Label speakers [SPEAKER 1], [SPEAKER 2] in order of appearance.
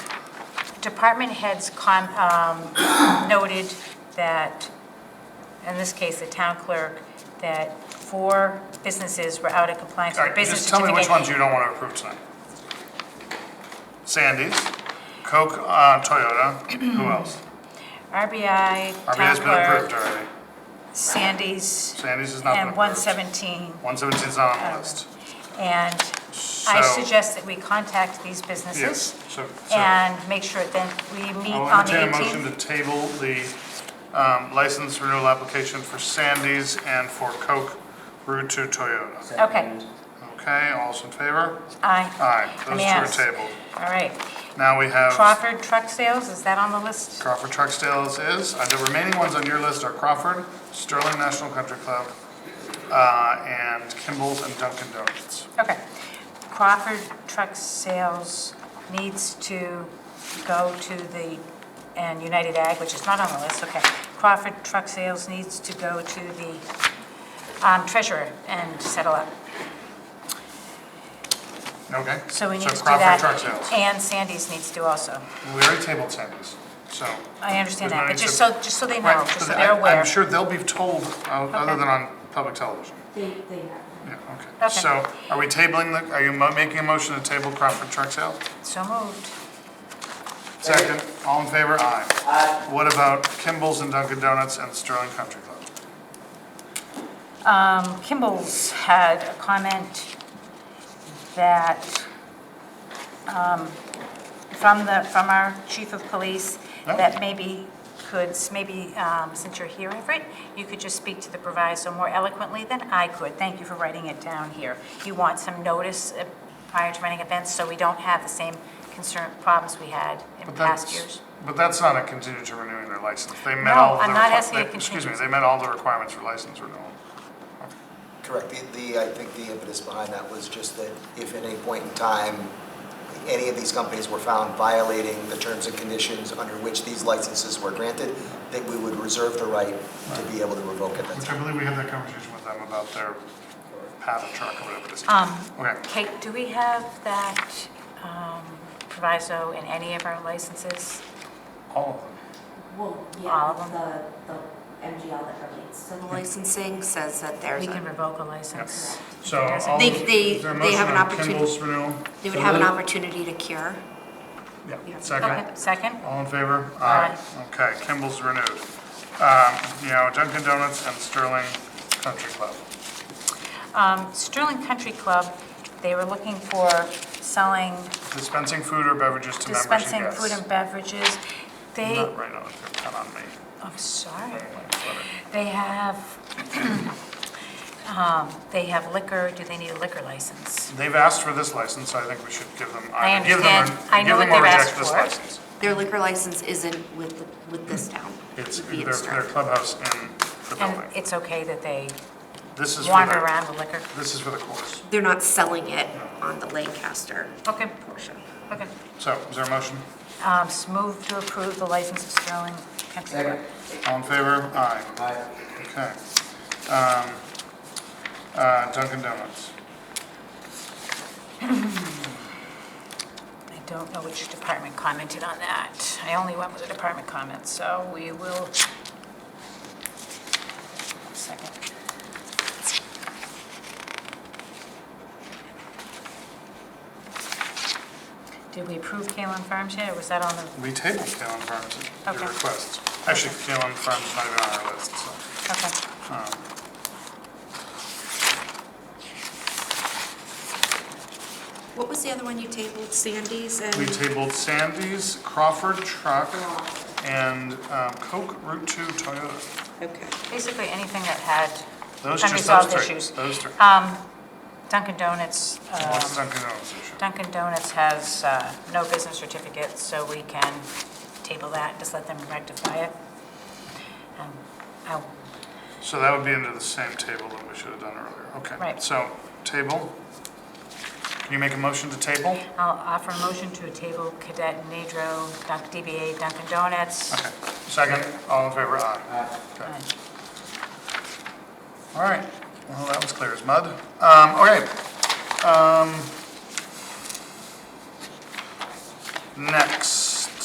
[SPEAKER 1] department heads com- um, noted that, in this case, the town clerk, that four businesses were out of compliance
[SPEAKER 2] All
[SPEAKER 1] with the
[SPEAKER 2] right,
[SPEAKER 1] business
[SPEAKER 2] just tell me which ones
[SPEAKER 1] certificate.
[SPEAKER 2] you don't want to approve tonight. Sandy's, Coke, uh, Toyota, who else?
[SPEAKER 1] RBI, town
[SPEAKER 2] RBI's been approved
[SPEAKER 1] clerk,
[SPEAKER 2] already.
[SPEAKER 1] Sandy's,
[SPEAKER 2] Sandy's has not been
[SPEAKER 1] and
[SPEAKER 2] approved.
[SPEAKER 1] 117.
[SPEAKER 2] 117's not on the list.
[SPEAKER 1] And I
[SPEAKER 2] So-
[SPEAKER 1] suggest that we contact these businesses
[SPEAKER 2] Yes, so, so
[SPEAKER 1] and make sure that we meet
[SPEAKER 2] I'll
[SPEAKER 1] on the
[SPEAKER 2] entertain a motion
[SPEAKER 1] 18th.
[SPEAKER 2] to table the um, license renewal application for Sandy's and for Coke Route to Toyota.
[SPEAKER 1] Okay,
[SPEAKER 2] Okay, all's in favor?
[SPEAKER 1] aye,
[SPEAKER 2] Aye,
[SPEAKER 1] Let me
[SPEAKER 2] those
[SPEAKER 1] ask.
[SPEAKER 2] two are tabled.
[SPEAKER 1] all right.
[SPEAKER 2] Now we have.
[SPEAKER 1] Crawford Truck Sales, is that on the list?
[SPEAKER 2] Crawford Truck Sales is, uh, the remaining ones on your list are Crawford, Sterling National Country Club, uh, and Kimball's and Dunkin' Donuts.
[SPEAKER 1] Okay. Crawford Truck Sales needs to go to the, and United Ag, which is not on the list, okay. Crawford Truck Sales needs to go to the um, treasurer and settle up.
[SPEAKER 2] Okay?
[SPEAKER 1] So we need to do
[SPEAKER 2] So
[SPEAKER 1] that.
[SPEAKER 2] Crawford Truck Sales.
[SPEAKER 1] And Sandy's needs to also.
[SPEAKER 2] We already tabled Sandy's, so.
[SPEAKER 1] I understand that,
[SPEAKER 2] There's no
[SPEAKER 1] but
[SPEAKER 2] need
[SPEAKER 1] just so,
[SPEAKER 2] to-
[SPEAKER 1] just so they know,
[SPEAKER 2] Right,
[SPEAKER 1] just so
[SPEAKER 2] but
[SPEAKER 1] they're
[SPEAKER 2] I-
[SPEAKER 1] aware.
[SPEAKER 2] I'm sure they'll be told, uh, other
[SPEAKER 1] Okay.
[SPEAKER 2] than on public television.
[SPEAKER 3] They, they have.
[SPEAKER 2] Yeah, okay.
[SPEAKER 1] Okay.
[SPEAKER 2] So are we tabling, the? are you mo- making a motion to table Crawford Truck Sales?
[SPEAKER 1] So moved.
[SPEAKER 2] Second, all in favor? Aye. What about Kimball's and Dunkin' Donuts and Sterling Country Club?
[SPEAKER 1] Um, Kimball's had a comment that, um, from the, from our chief of police,
[SPEAKER 2] No.
[SPEAKER 1] that maybe could, maybe, um, since you're here, Everett, you could just speak to the proviso more eloquently than I could. Thank you for writing it down here. You want some notice uh, prior to running events, so we don't have the same concern, problems we had in
[SPEAKER 2] But
[SPEAKER 1] past
[SPEAKER 2] that's-
[SPEAKER 1] years.
[SPEAKER 2] But that's not a contingent to renewing their license. They met
[SPEAKER 1] No,
[SPEAKER 2] all of the.
[SPEAKER 1] I'm not
[SPEAKER 2] requi-
[SPEAKER 1] asking a
[SPEAKER 2] they- Excuse me,
[SPEAKER 1] contingency.
[SPEAKER 2] they met all the requirements for license renewal.
[SPEAKER 4] Correct. The- The, I think the impetus behind that was just that if at any point in time, any of these companies were found violating the terms and conditions under which these licenses were granted, that we would reserve the right to be able to revoke at that
[SPEAKER 2] Which I
[SPEAKER 4] time.
[SPEAKER 2] believe we had that conversation with them about their pad and truck or whatever it is.
[SPEAKER 1] Um,
[SPEAKER 2] Okay,
[SPEAKER 1] Kate, do we have that um, proviso in any of our licenses?
[SPEAKER 2] all of them.
[SPEAKER 3] Well,
[SPEAKER 1] All
[SPEAKER 3] yeah,
[SPEAKER 1] of them?
[SPEAKER 3] the, the MGL that relates to the
[SPEAKER 5] Licensing says that there's
[SPEAKER 1] We can
[SPEAKER 5] a,
[SPEAKER 1] revoke a license.
[SPEAKER 2] So
[SPEAKER 1] There's a-
[SPEAKER 2] all.
[SPEAKER 5] They-
[SPEAKER 2] those-
[SPEAKER 5] they-
[SPEAKER 2] is there a
[SPEAKER 5] they
[SPEAKER 2] motion
[SPEAKER 5] have an
[SPEAKER 2] on
[SPEAKER 5] opportunity-
[SPEAKER 2] Kimball's renewal?
[SPEAKER 5] they would have an opportunity to cure.
[SPEAKER 2] Yeah,
[SPEAKER 1] Okay,
[SPEAKER 2] second.
[SPEAKER 1] second?
[SPEAKER 2] All in favor?
[SPEAKER 1] Aye.
[SPEAKER 2] Okay, Kimball's renewed. Um, You know, Dunkin' Donuts and Sterling Country Club.
[SPEAKER 1] Um, Sterling Country Club, they were looking for selling
[SPEAKER 2] Dispensing food or beverages to members and guests.
[SPEAKER 1] dispensing food and beverages. They,
[SPEAKER 2] Not right on, not on me.
[SPEAKER 1] I'm sorry,
[SPEAKER 2] Right, whatever.
[SPEAKER 1] they have, um, they have liquor, do they need a liquor license?
[SPEAKER 2] They've asked for this license, so I think we should give them,
[SPEAKER 1] I
[SPEAKER 2] either give them,
[SPEAKER 1] understand.
[SPEAKER 2] or-
[SPEAKER 1] I know
[SPEAKER 2] give them
[SPEAKER 1] what
[SPEAKER 2] or
[SPEAKER 1] they've
[SPEAKER 2] reject
[SPEAKER 1] asked
[SPEAKER 2] this
[SPEAKER 1] for.
[SPEAKER 2] license.
[SPEAKER 5] Their liquor license isn't with, the- with this town.
[SPEAKER 2] Hmm. It's
[SPEAKER 5] with the
[SPEAKER 2] their, their
[SPEAKER 5] Innstar.
[SPEAKER 2] clubhouse in the
[SPEAKER 1] And
[SPEAKER 2] building.
[SPEAKER 1] it's okay that they
[SPEAKER 2] This is for
[SPEAKER 1] wander
[SPEAKER 2] the,
[SPEAKER 1] around with liquor?
[SPEAKER 2] this is for the course.
[SPEAKER 5] They're not selling it on the Lancaster
[SPEAKER 1] Okay,
[SPEAKER 5] portion.
[SPEAKER 1] okay.
[SPEAKER 2] So, is there a motion?
[SPEAKER 1] Um, s- Move to approve the license of Sterling Country Club.
[SPEAKER 2] All in favor? Aye. Okay. Um, uh, Dunkin' Donuts.
[SPEAKER 1] I don't know which department commented on that. I only went with the department comments, so we will. Second. Did we approve Kalen Farms yet, or was that on the,
[SPEAKER 2] We tabled Kalen Farms at your
[SPEAKER 1] Okay.
[SPEAKER 2] request. Actually, Kalen Farms is not even on our list, so.
[SPEAKER 1] okay.
[SPEAKER 2] um,
[SPEAKER 5] What was the other one you tabled, Sandy's and?
[SPEAKER 2] We
[SPEAKER 1] Mm-hmm.
[SPEAKER 2] tabled Sandy's, Crawford Truck, and um, Coke Route 2 Toyota.
[SPEAKER 5] Okay.
[SPEAKER 1] Basically, anything that had
[SPEAKER 2] Those just those
[SPEAKER 1] unresolved
[SPEAKER 2] three.
[SPEAKER 1] issues.
[SPEAKER 2] Those three.
[SPEAKER 1] Um, Dunkin' Donuts, um,
[SPEAKER 2] What's Dunkin' Donuts issue?
[SPEAKER 1] Dunkin' Donuts has uh, no business certificate, so we can table that, just let them rectify it. Um, oh,
[SPEAKER 2] So that would be under the same table that we should have done earlier. Okay.
[SPEAKER 1] Right.
[SPEAKER 2] So, table. Can you make a motion to table?
[SPEAKER 1] I'll offer a motion to table Cadet Nadro, Dunk- DBA Dunkin' Donuts.
[SPEAKER 2] Okay. Second, all in favor, aye.
[SPEAKER 1] Uh,
[SPEAKER 2] Okay. All right. Well, that was clear as mud. Um, Okay. Um, Next.